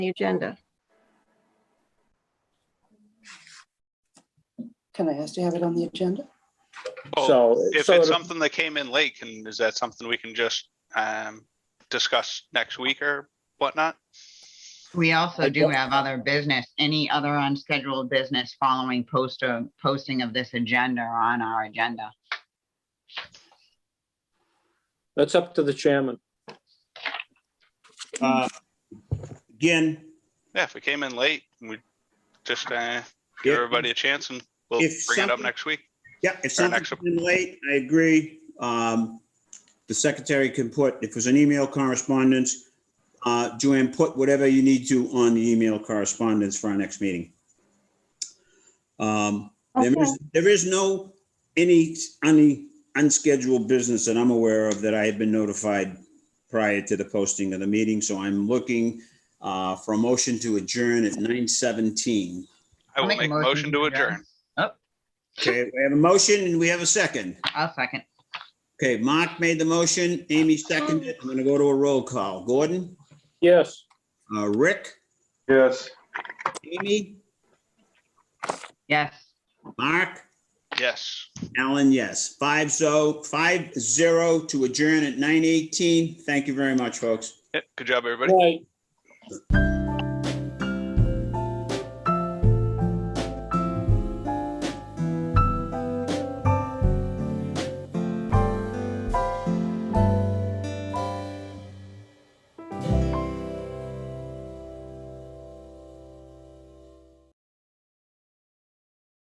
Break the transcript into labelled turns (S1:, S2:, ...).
S1: the agenda.
S2: Can I ask to have it on the agenda?
S3: Oh,
S4: So,
S3: if
S4: so
S3: it's
S4: it'll-
S3: something that came in late, can, is that something we can just, um, discuss next week or whatnot?
S5: We also do
S4: don't-
S5: have other business, any other unscheduled business following poster, posting of this agenda on our agenda.
S4: that's up to the chairman.
S6: Uh, Again,
S3: Yeah, if we came in late, we just, uh,
S6: Yeah.
S3: give everybody a chance and we'll
S6: If
S3: bring it up
S6: something-
S3: next week.
S6: yeah, if
S3: Our next-
S6: something's been late, I agree. Um, The secretary can put, if there's an email correspondence, uh, Joanne, put whatever you need to on the email correspondence for our next meeting. Um, There is, there is no, any, any unscheduled business that I'm aware of that I have been notified prior to the posting of the meeting, so I'm looking uh, for a motion to adjourn at 9:17.
S3: I will make a motion to adjourn.
S6: Okay, we have a motion and we have a second.
S5: I'll second.
S6: Okay, Mark made the motion, Amy seconded. it. I'm gonna go to a roll call. Gordon,
S4: Yes.
S6: uh, Rick,
S7: Yes.
S6: Amy,
S5: Yes.
S6: Mark,
S3: Yes.
S6: Alan, yes. Five so, five zero to adjourn at nine eighteen. Thank you very much, folks.
S3: Yeah, Good job, everybody.
S4: Right.